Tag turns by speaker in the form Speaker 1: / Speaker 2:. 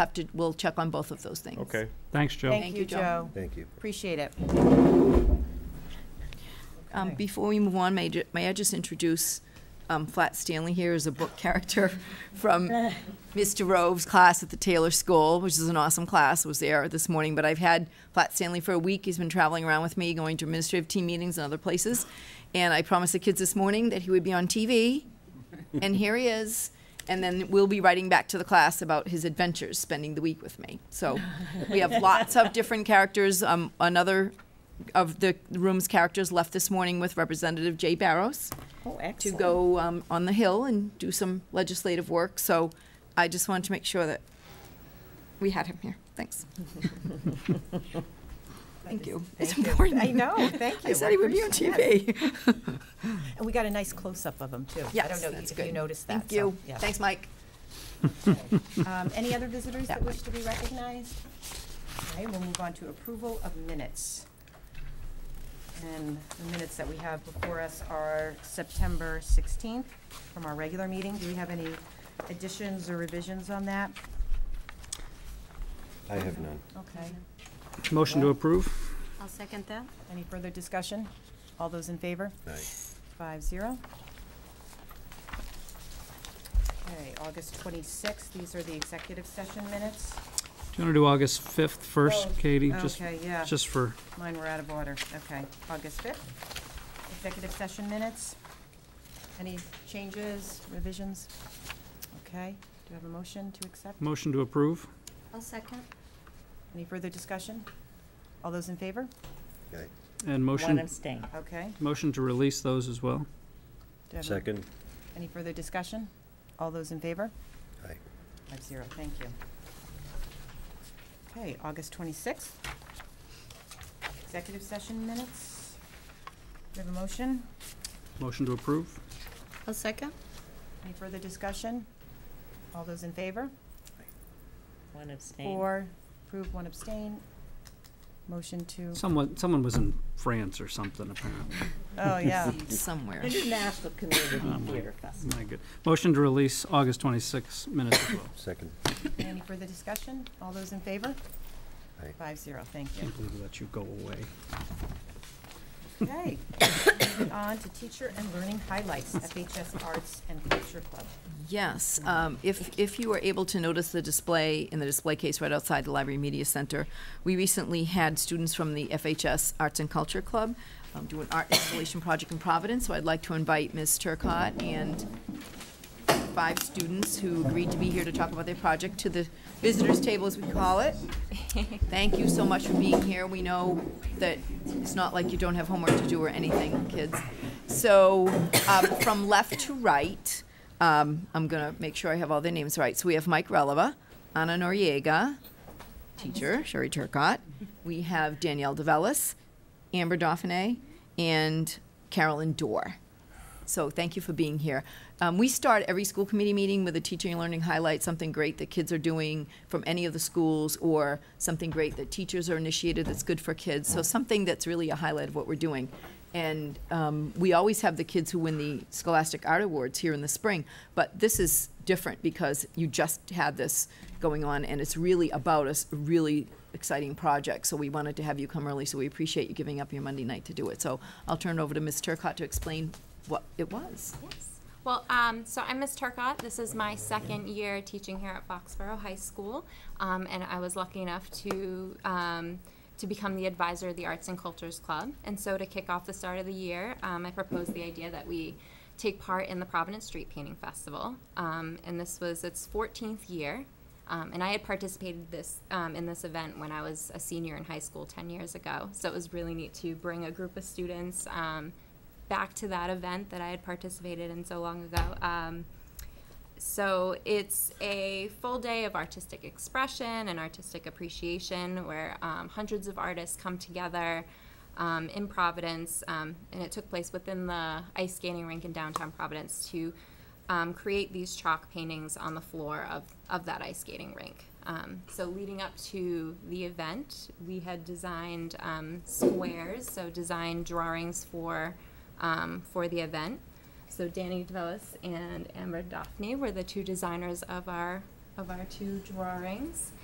Speaker 1: have to, we'll check on both of those things.
Speaker 2: Okay.
Speaker 3: Thanks, Joe.
Speaker 1: Thank
Speaker 4: Thank
Speaker 1: you,
Speaker 4: you,
Speaker 1: Joe.
Speaker 4: Joe.
Speaker 2: Thank you.
Speaker 4: Appreciate it.
Speaker 1: Um,
Speaker 4: Okay.
Speaker 1: Before we move on, may, ju- may I just introduce um, Flat Stanley here as a book character from Mr. Rove's class at the Taylor School, which is an awesome class, was there this morning, but I've had Flat Stanley for a week, he's been traveling around with me, going to administrative team meetings and other places, and I promised the kids this morning that he would be on TV, and here he is, and then we'll be writing back to the class about his adventures, spending the week with me. So we have lots of different characters, um, another of the room's characters left this morning with Representative Jay Barrows
Speaker 4: Oh,
Speaker 1: to
Speaker 4: excellent.
Speaker 1: go um, on the Hill and do some legislative work. So I just wanted to make sure that we had him here. Thanks. Thank you. It's important.
Speaker 4: I know, thank you.
Speaker 1: I said he would be on
Speaker 4: Appreciate it.
Speaker 1: TV.
Speaker 4: And we got a nice close-up of him, too. I
Speaker 1: Yes,
Speaker 4: don't know
Speaker 1: that's
Speaker 4: if you
Speaker 1: good.
Speaker 4: noticed that.
Speaker 1: Thank
Speaker 4: so,
Speaker 1: you.
Speaker 4: yeah.
Speaker 1: Thanks, Mike.
Speaker 4: Um, Any other visitors
Speaker 1: That
Speaker 4: that wish to be recognized? Okay, we'll move on to approval of minutes. And the minutes that we have before us are September 16th from our regular meeting. Do we have any additions or revisions on that?
Speaker 2: I have none.
Speaker 4: Okay.
Speaker 3: Motion to approve?
Speaker 5: I'll second that.
Speaker 4: Any further discussion? All those in favor?
Speaker 2: Aye.
Speaker 4: Five zero. Okay, August twenty-sixth, these are the executive session minutes.
Speaker 3: Do you want to do August 5th first,
Speaker 4: Oh,
Speaker 3: Katie? Just-
Speaker 4: okay, yeah.
Speaker 3: Just for,
Speaker 4: Mine were out of order. Okay, August fifth, executive session minutes. Any changes, revisions? Okay, do you have a motion to accept?
Speaker 3: motion to approve?
Speaker 5: I'll second.
Speaker 4: Any further discussion? All those in favor?
Speaker 2: Aye.
Speaker 3: And motion,
Speaker 6: abstain.
Speaker 4: Okay. do
Speaker 3: motion to release those as well?
Speaker 4: you have a-
Speaker 2: Second?
Speaker 4: Any further discussion? All those in favor?
Speaker 2: Aye.
Speaker 4: Five zero, thank you. Okay, August twenty-sixth. Executive session minutes. Do we have a motion?
Speaker 3: Motion to approve?
Speaker 5: I'll second.
Speaker 4: Any further discussion? All those in favor?
Speaker 6: One abstain.
Speaker 4: Four, approve, one abstain. Motion to,
Speaker 3: Someone, someone was in France or something apparently.
Speaker 4: oh, yeah.
Speaker 1: Somewhere.
Speaker 6: International
Speaker 3: Oh,
Speaker 6: Community
Speaker 3: my-
Speaker 6: Theater Festival.
Speaker 3: My good. Motion to release August 26 minutes as well.
Speaker 2: Second.
Speaker 4: Any further discussion? All those in favor?
Speaker 2: Aye.
Speaker 4: Five zero, thank you.
Speaker 3: Can't believe we let you go away.
Speaker 4: Okay. Moving on to teacher and learning highlights, FHS Arts and Culture Club.
Speaker 1: Yes, um, if, if you were able to notice the display in the display case right outside the Library Media Center, we recently had students from the FHS Arts and Culture Club um, do an art installation project in Providence, so I'd like to invite Ms. Turcott and five students who agreed to be here to talk about their project to the visitors table, as we call it. Thank you so much for being here. We know that it's not like you don't have homework to do or anything, kids. So, um, from left to right, um, I'm gonna make sure I have all their names right. So we have Mike Releva, Anna Noriega, teacher, Sherry Turcott. We have Danielle DeVellis, Amber Dauphiné, and Carolyn Dorr. So thank you for being here. Um, we start every school committee meeting with a teaching and learning highlight, something great that kids are doing from any of the schools, or something great that teachers are initiated that's good for kids. So something that's really a highlight of what we're doing. And um, we always have the kids who win the Scholastic Art Awards here in the spring, but this is different because you just had this going on, and it's really about us really exciting project, so we wanted to have you come early, so we appreciate you giving up your Monday night to do it. So I'll turn it over to Ms. Turcott to explain what it was.
Speaker 7: Yes. Well, um, so I'm Ms. Turcott. This is my second year teaching here at Foxborough High School, um, and I was lucky enough to um, to become the advisor of the Arts and Cultures Club. And so, to kick off the start of the year, um, I proposed the idea that we take part in the Providence Street Painting Festival, um, and this was its 14th year. Um, and I had participated this um, in this event when I was a senior in high school 10 years ago. So it was really neat to bring a group of students um, back to that event that I had participated in so long ago. Um, so it's a full day of artistic expression and artistic appreciation where um, hundreds of artists come together um, in Providence, um, and it took place within the ice skating rink in downtown Providence to um, create these chalk paintings on the floor of, of that ice skating rink. Um, so, leading up to the event, we had designed um, squares, so designed drawings for, um, for the event. So Danny DeVellis and Amber Daphne were the two designers of our of our two drawings.